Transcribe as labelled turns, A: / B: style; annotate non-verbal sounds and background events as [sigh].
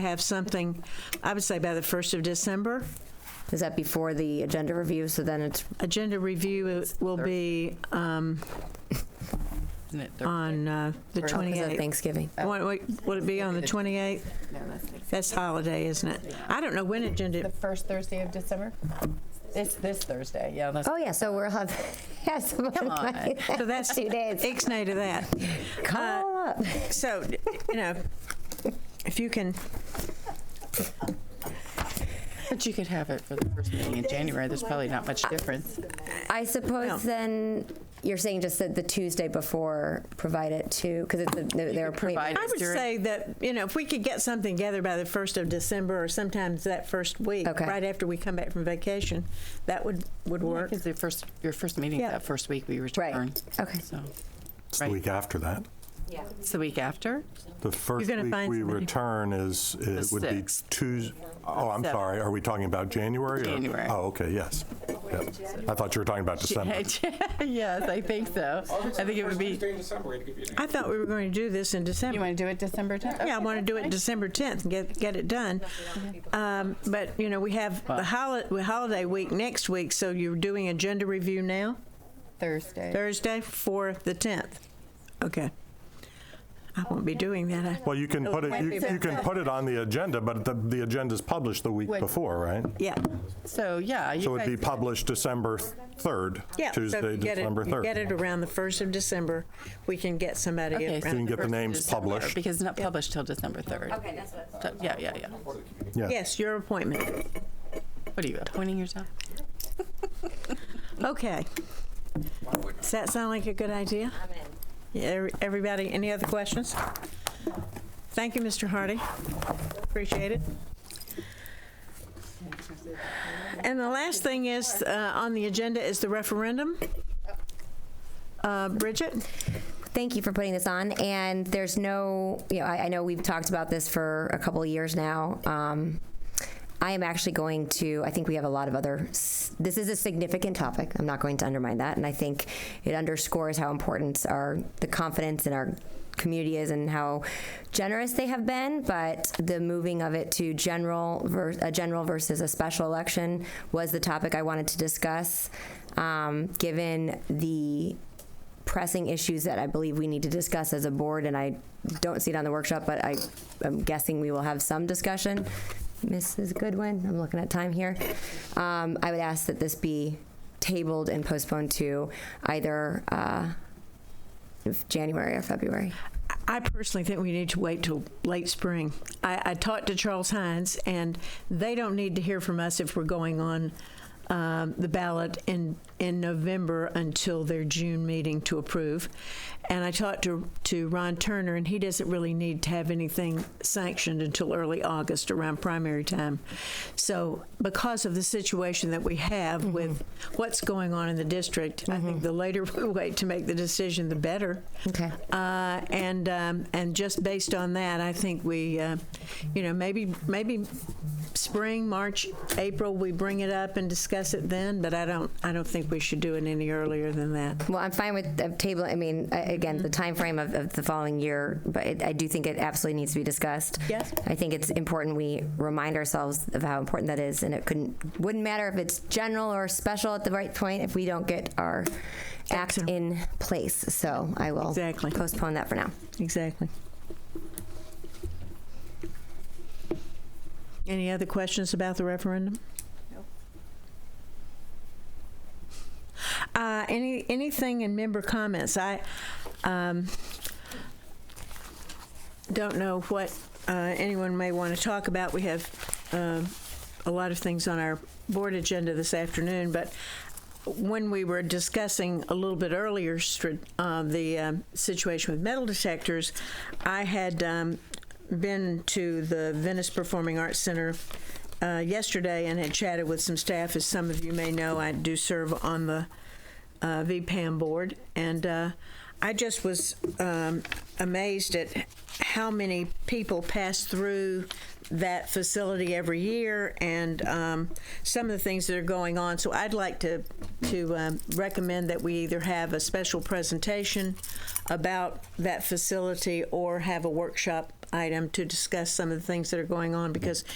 A: have something, I would say by the 1st of December.
B: Is that before the agenda review? So then it's, oh,
A: Agenda review will be um,
C: Isn't it Thursday?
A: on uh, the
B: oh, 'cause of
A: 28th.
B: Thanksgiving.
A: What- what- Would it be on the 28th?
C: No, that's next.
A: That's holiday, isn't it? I don't know when
C: The
A: agenda,
C: first Thursday of December? It's this Thursday, yeah, that's.
B: Oh, yeah, so we'll have, [laughs] yes. Come
C: on.
A: so that's,
B: [laughs] Two days.
A: ixnay to that. Uh,
B: Call up.
A: So, you know, if you can,
C: But you could have it for the first meeting in January, there's probably not much difference.
B: I
A: No.
B: suppose then, you're saying just that the Tuesday before, provide it to, because it's, a- their their
C: You could provide
B: appointment.
A: I
C: it
A: would
C: during-
A: say that, you know, if we could get something together by the 1st of December or sometimes that first week,
B: Okay.
A: right after we come back from vacation, that would, would work.
C: Because the first, your first meeting
A: Yeah.
C: that first week we return.
B: okay.
C: So,
D: It's
C: Right.
D: the week after that.
C: it's the week after?
D: The first
A: gonna
D: week
A: find
D: we
A: somebody.
D: return is, it would be
C: sixth.
D: Tuesday. Oh, I'm
C: Seventh.
D: sorry. Are we talking about January? or-
C: January.
D: Oh, okay, yes. Yep. I thought you were talking about December.
C: [laughs] Yes, I think so. I think it would be,
E: Tuesday in December, to give you an
A: I thought we were going to do this in December.
C: you want to do it December 10th?
A: Yeah, I want to do it December 10th and get, get it done. Um, But, you know, we have the holi- the holiday week next week, so you're doing agenda review now,
C: Thursday.
A: Thursday for the 10th? Okay. I won't be doing that. I-
D: Well, you
C: Oh,
D: can put it, you- you can put it on the agenda, but the, the agenda's published the week
C: Wait.
D: before, right?
A: Yeah,
C: So, yeah. you
D: So it'd be
C: guys-
D: published December 3rd,
A: yeah. so if
D: Tuesday,
A: you get it-
D: December
A: you Get
D: 3rd.
A: it around the 1st of December, we can get somebody
C: Okay,
A: around.
C: so
D: can get the
C: first of
D: names
C: December,
D: published.
C: Because it's not published till December 3rd. Okay, that's what. Yeah, yeah, yeah.
D: Yeah.
A: Yes, your appointment.
C: What are you, appointing yourself?
A: Okay. Does that sound like a good idea? I'm in. Everybody, any other questions? Thank you, Mr. Hardy. Appreciate it. And the last thing is, uh, on the agenda is the referendum. Uh, Bridget?
B: thank you for putting this on. And there's no, you know, I, I know we've talked about this for a couple of years now. Um, I am actually going to, I think we have a lot of other, s- this is a significant topic. I'm not going to undermine that. And I think it underscores how important our, the confidence in our community is and how generous they have been. But the moving of it to general, ver- a general versus a special election was the topic I wanted to discuss. Um, given the pressing issues that I believe we need to discuss as a board, and I don't see it on the workshop, but I am guessing we will have some discussion. Mrs. Goodwin, I'm looking at time here. Um, I would ask that this be tabled and postponed to either uh, if January or February.
A: I personally think we need to wait till late spring. I, I talked to Charles Hines, and they don't need to hear from us if we're going on um, the ballot in in November until their June meeting to approve. And I talked to to Ron Turner, and he doesn't really need to have anything sanctioned until early August around primary time. So because of the situation that we have with what's going on in the district, I think the later [laughs] we wait to make the decision, the better.
B: Okay.
A: Uh, and um, and just based on that, I think we, uh, you know, maybe maybe spring, March, April, we bring it up and discuss it then. But I don't I don't think we should do it any earlier than that.
B: Well, I'm fine with the table. I mean, I- again, the
A: Mm-hmm.
B: time frame of, of the following year, but it, I do think it absolutely needs to be discussed.
A: Yes.
B: I think it's important we remind ourselves of how important that is, and it couldn't wouldn't matter if it's general or special at the right point if we don't get our act
A: Excellent.
B: in place. So I will
A: Exactly.
B: postpone that for now.
A: Exactly. Any other questions about the referendum? Uh, any anything in member comments? I um, don't know what uh, anyone may want to talk about. We have um a lot of things on our board agenda this afternoon, but when we were discussing a little bit earlier str- uh, the um, situation with metal detectors, I had um, been to the Venice Performing Arts Center uh, yesterday and had chatted with some staff. As some of you may know, I do serve on the uh, VPAM board, and uh, I just was um, amazed at how many people pass through that facility every year and um, some of the things that are going on. So I'd like to, to um, recommend that we either have a special presentation about that facility or have a workshop item to discuss some of the things that are going on because